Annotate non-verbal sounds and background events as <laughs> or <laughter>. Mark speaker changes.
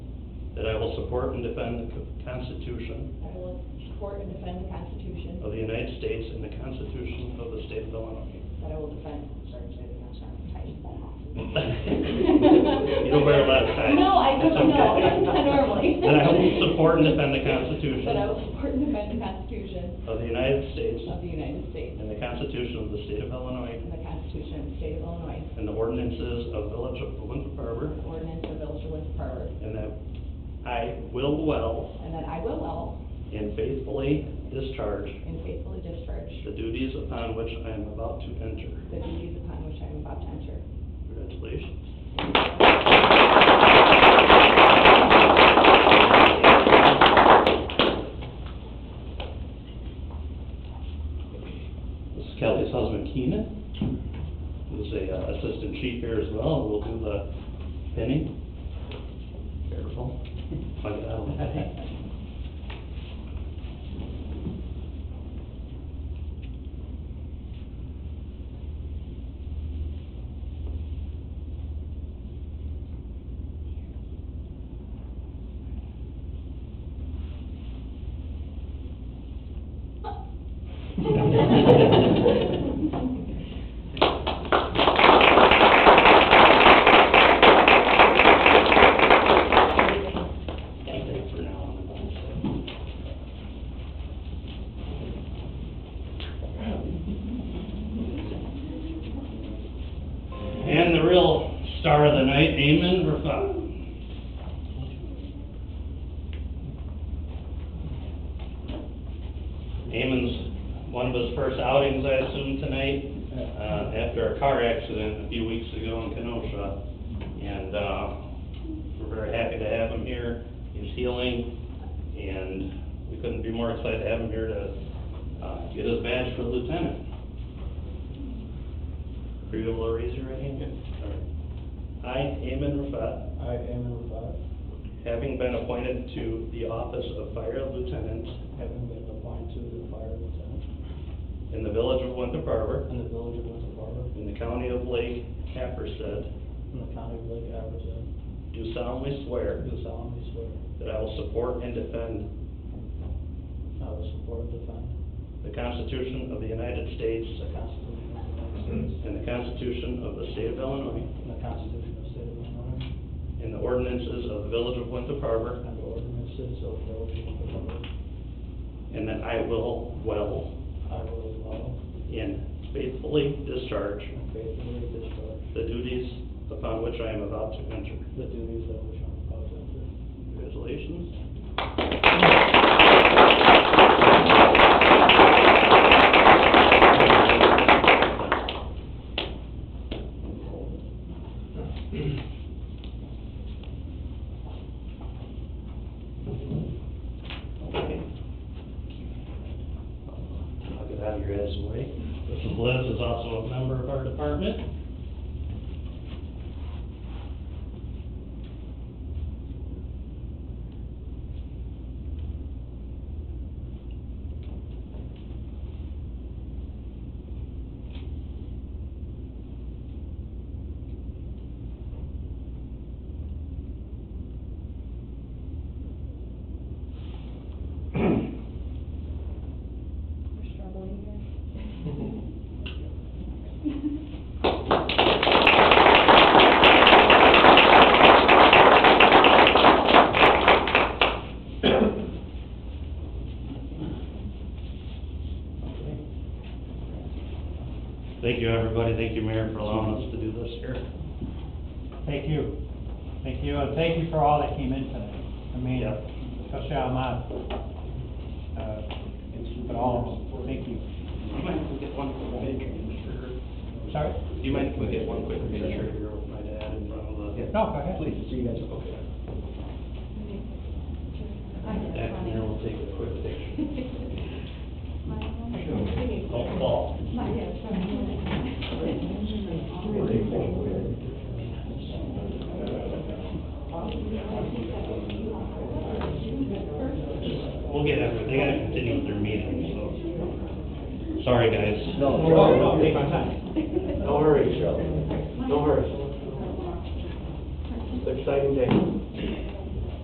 Speaker 1: will support and defend the Constitution
Speaker 2: I will support and defend the Constitution.
Speaker 1: of the United States and the Constitution of the State of Illinois.
Speaker 2: That I will defend, sorry, sorry, I'm sorry, I'm tired of falling off.
Speaker 1: <laughs> You don't wear a lot of ties.
Speaker 2: No, I
Speaker 1: That's
Speaker 2: don't, no,
Speaker 1: okay.
Speaker 2: <laughs> not normally.
Speaker 1: That I will support and defend the Constitution
Speaker 2: That I will support and defend the Constitution
Speaker 1: of the United States
Speaker 2: of the United States
Speaker 1: and the Constitution of the State of Illinois
Speaker 2: and the Constitution of the State of Illinois,
Speaker 1: and the ordinances of Village of Winthrop Harbor,
Speaker 2: the ordinance of Village of Winthrop Harbor,
Speaker 1: and that I will well
Speaker 2: and that I will well
Speaker 1: and faithfully discharge
Speaker 2: and faithfully discharge
Speaker 1: the duties upon which I am about to enter.
Speaker 2: the duties upon which I am about to enter.
Speaker 1: <laughs>
Speaker 2: <laughs>
Speaker 1: Congratulations. This is Kelly's husband Keenan, who's a uh, assistant chief here as well, we'll do the pinning.
Speaker 3: <laughs>
Speaker 1: Careful. Plug <laughs> it out. Keep it for now on the bottom side. And the real star of the night, Eamon Rafa. Eamon's, one of his first outings, I assume, tonight, uh, after a car accident a few weeks ago in Kenosha. And, uh, we're very happy to have him here. He's healing, and we couldn't be more excited to have him here to, uh, get his badge for lieutenant. Are you able to raise your right hand? All right. I, Eamon Rafa,
Speaker 3: I, Amon Rabat,
Speaker 1: having been appointed to the office of fire lieutenant
Speaker 3: having been appointed to the fire lieutenant
Speaker 1: in the village of Winthrop Harbor,
Speaker 3: in the village of Winter Harbor,
Speaker 1: in the county of Lake Happersett,
Speaker 3: in the county of Lake Atherton,
Speaker 1: do solemnly swear
Speaker 3: do solemnly swear
Speaker 1: that I will support and defend
Speaker 3: I will support and defend
Speaker 1: the Constitution of the United States
Speaker 3: the Constitution of the United States
Speaker 1: and the Constitution of the State of Illinois
Speaker 3: and the Constitution of the State of Illinois
Speaker 1: and the ordinances of the village of Winthrop Harbor,
Speaker 3: and the ordinances of the village of Winter Harbor.
Speaker 1: and that I will well
Speaker 3: I will well
Speaker 1: and faithfully discharge
Speaker 3: and faithfully discharge
Speaker 1: the duties upon which I am about to enter.
Speaker 3: the duties of which I am about to enter.
Speaker 1: Congratulations. Okay. I'll get out of your guys' way. Mrs. Liz is also a member of our department.
Speaker 2: We're struggling here.
Speaker 1: Thank you, everybody. Thank you, Mayor, for allowing us to do this here.
Speaker 4: Thank you. Thank you, and thank you for all that came in tonight. I mean,
Speaker 1: Yep.
Speaker 4: especially on my, uh, it's, but all, of them. thank you.
Speaker 1: Do you mind if we get one quick picture? Do
Speaker 4: Sorry?
Speaker 1: you mind if we get one quick picture of your, my dad in front of the?
Speaker 4: No, go ahead.
Speaker 1: Please, so you guys, okay. And Mayor will take a quick picture. Don't fall. We'll get it. They gotta continue with their meeting, so. Sorry, guys.
Speaker 3: No,
Speaker 4: no, no,
Speaker 3: take
Speaker 4: take
Speaker 3: my
Speaker 4: my
Speaker 3: time.
Speaker 1: Don't worry, Joe. Don't worry. It's an exciting day.